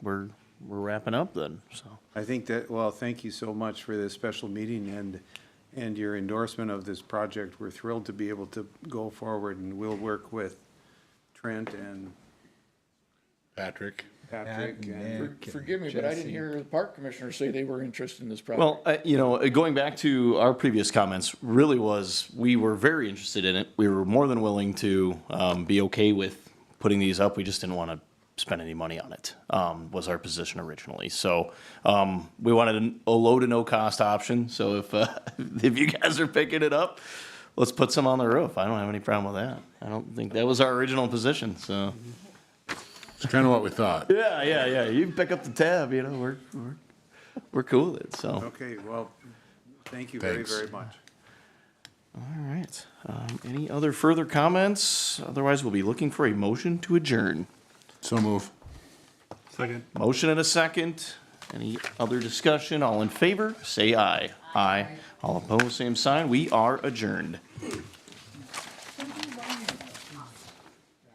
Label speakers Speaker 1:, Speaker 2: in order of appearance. Speaker 1: we're, we're wrapping up then, so.
Speaker 2: I think that, well, thank you so much for this special meeting and, and your endorsement of this project. We're thrilled to be able to go forward and we'll work with Trent and
Speaker 3: Patrick.
Speaker 2: Patrick and.
Speaker 4: For- Forgive me, but I didn't hear the park commissioner say they were interested in this project.
Speaker 1: Well, uh, you know, uh, going back to our previous comments, really was, we were very interested in it. We were more than willing to um, be okay with putting these up. We just didn't want to spend any money on it, um, was our position originally. So um, we wanted an- a low to no cost option. So if, uh, if you guys are picking it up, let's put some on the roof. I don't have any problem with that. I don't think, that was our original position, so.
Speaker 3: It's kind of what we thought.
Speaker 1: Yeah, yeah, yeah. You pick up the tab, you know, we're, we're, we're cool with it, so.
Speaker 2: Okay, well, thank you very,
Speaker 3: Thanks.
Speaker 2: very much.
Speaker 1: All right. Um, Any other further comments? Otherwise, we'll be looking for a motion to adjourn.
Speaker 3: So move.
Speaker 1: Motion and a second. Any other discussion? All in favor, say aye. Aye. All opposed, same sign. We are adjourned.